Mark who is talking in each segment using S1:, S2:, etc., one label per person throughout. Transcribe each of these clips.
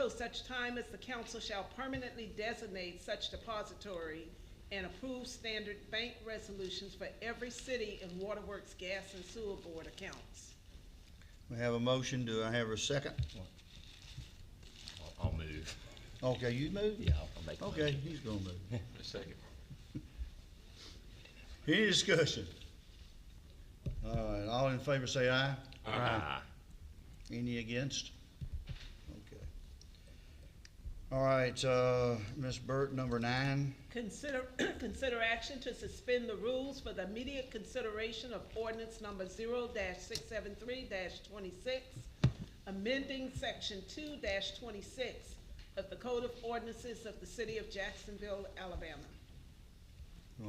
S1: until such time as the council shall permanently designate such depository and approve standard bank resolutions for every city and waterworks gas and sewer board accounts.
S2: We have a motion, do I have a second?
S3: I'll- I'll move.
S2: Okay, you move?
S3: Yeah, I'll I'll make a
S2: Okay,
S3: motion.
S2: he's gonna move.
S4: A second.
S2: Any discussion? All right, all in favor say aye.
S3: Aye.
S2: Any against? Okay. All right, uh, Ms. Burt, number nine.
S1: Consider, consider action to suspend the rules for the immediate consideration of ordinance number zero six seven three twenty-six, amending section two twenty-six of the Code of Ordinances of the City of Jacksonville, Alabama.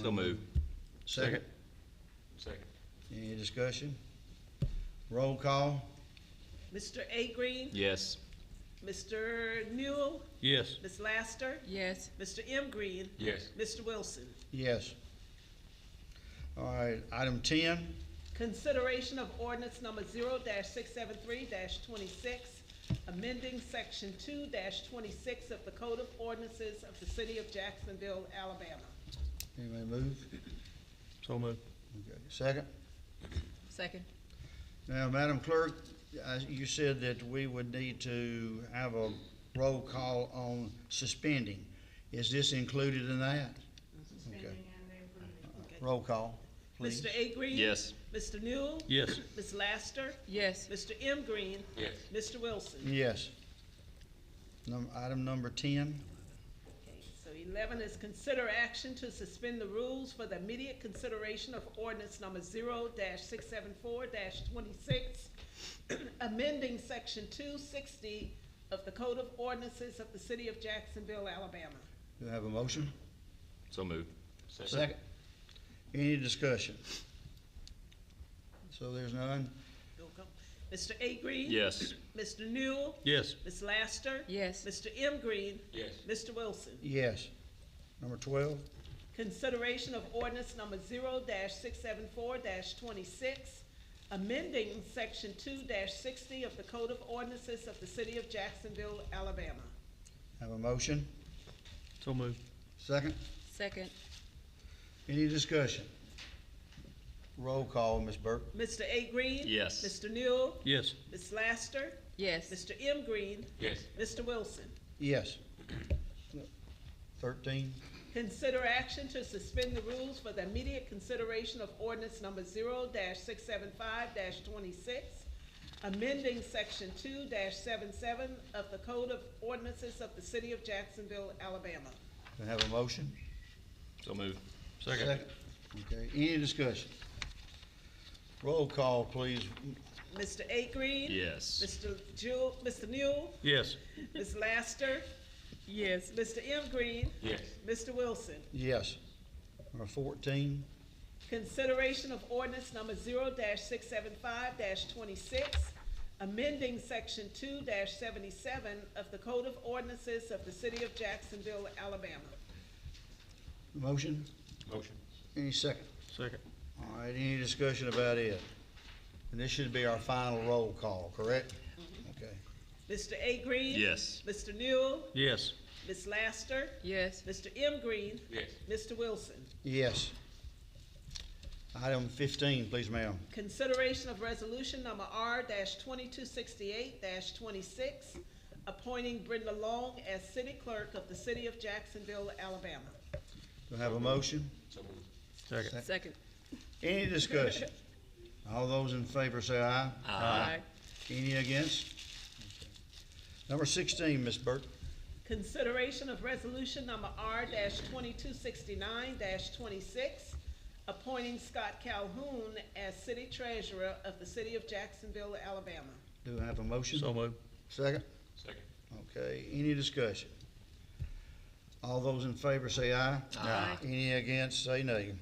S3: So move.
S2: Second.
S4: Second.
S2: Any discussion? Roll call?
S1: Mr. A Green?
S3: Yes.
S1: Mr. Newell?
S4: Yes.
S1: Ms. Laster?
S5: yes,
S1: Mr. M Green?
S4: Yes.
S1: Mr. Wilson?
S2: Yes. All right, item ten,
S1: Consideration of ordinance number zero six seven three twenty-six, amending section two twenty-six of the Code of Ordinances of the City of Jacksonville, Alabama.
S2: anybody move?
S4: So move.
S2: Okay, Second.
S5: second,
S2: Now, Madam Clerk, uh, you said that we would need to have a roll call on suspending. Is this included in that? Okay. Roll call, please.
S1: Mr. A Green?
S3: Yes.
S1: Mr. Newell?
S4: Yes.
S1: Ms. Laster?
S5: yes,
S1: Mr. M Green?
S4: Yes.
S1: Mr. Wilson?
S2: Yes. Num- Item number ten,
S1: Okay, So eleven is consider action to suspend the rules for the immediate consideration of ordinance number zero six seven four twenty-six, amending section two sixty of the Code of Ordinances of the City of Jacksonville, Alabama.
S2: do I have a motion?
S3: So move.
S2: Second. Any discussion? So there's none?
S1: You'll go. Mr. A Green?
S3: Yes.
S1: Mr. Newell?
S4: Yes.
S1: Ms. Laster?
S5: yes,
S1: Mr. M Green?
S4: Yes.
S1: Mr. Wilson?
S2: Yes. Number twelve,
S1: Consideration of ordinance number zero six seven four twenty-six, amending section two sixty of the Code of Ordinances of the City of Jacksonville, Alabama.
S2: have a motion?
S4: So move.
S2: Second?
S5: second,
S2: Any discussion? Roll call, Ms. Burke.
S1: Mr. A Green?
S3: Yes.
S1: Mr. Newell?
S4: Yes.
S1: Ms. Laster?
S5: yes,
S1: Mr. M Green?
S4: Yes.
S1: Mr. Wilson?
S2: Yes. Thirteen,
S1: Consider action to suspend the rules for the immediate consideration of ordinance number zero six seven five twenty-six, amending section two 77 of the Code of Ordinances of the City of Jacksonville, Alabama.
S2: do I have a motion?
S3: So move.
S2: Okay, any discussion? Roll call, please.
S1: Mr. A Green?
S3: Yes.
S1: Mr. Jewel, Mr. Newell,
S4: Yes.
S1: Ms. Laster,
S5: yes,
S1: Mr. M Green,
S4: Yes.
S1: Mr. Wilson.
S2: Yes. Number fourteen,
S1: Consideration of ordinance number zero six seven five twenty-six, amending section two seventy-seven of the Code of Ordinances of the City of Jacksonville, Alabama.
S2: motion,
S4: Motion.
S2: any second?
S4: Second.
S2: All right, any discussion about it? And this should be our final roll call, correct? Okay,
S1: Mr. A Green?
S3: Yes.
S1: Mr. Newell,
S4: Yes.
S1: Ms. Laster,
S5: yes,
S1: Mr. M Green,
S4: Yes.
S1: Mr. Wilson.
S2: yes. Item fifteen, please, ma'am.
S1: Consideration of resolution number R twenty-two sixty-eight twenty-six, appointing Brenda Long as city clerk of the City of Jacksonville, Alabama.
S2: Do I have a motion?
S4: So move. Second.
S5: second,
S2: Any discussion? All those in favor say aye.
S5: aye,
S2: Any against? Number sixteen, Ms. Burke.
S1: Consideration of resolution number R twenty-two sixty-nine twenty-six, appointing Scott Calhoun as city treasurer of the City of Jacksonville, Alabama.
S2: Do I have a motion?
S4: So move.
S2: Second?
S4: Second.
S2: Okay, any discussion? All those in favor say aye.
S5: Aye.
S2: Any against, say nay.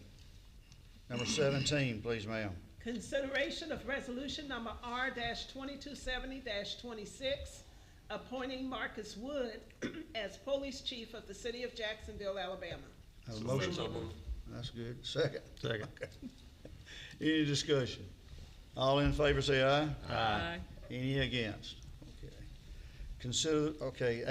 S2: Number seventeen, please, ma'am.
S1: Consideration of resolution number R twenty-two seventy twenty-six, appointing Marcus Wood as police chief of the City of Jacksonville, Alabama.
S2: Have a motion?
S4: move.
S2: That's good. Second?
S4: Second.
S2: Any discussion? All in favor say aye.
S5: aye.
S2: Any against? Okay. Consider, okay,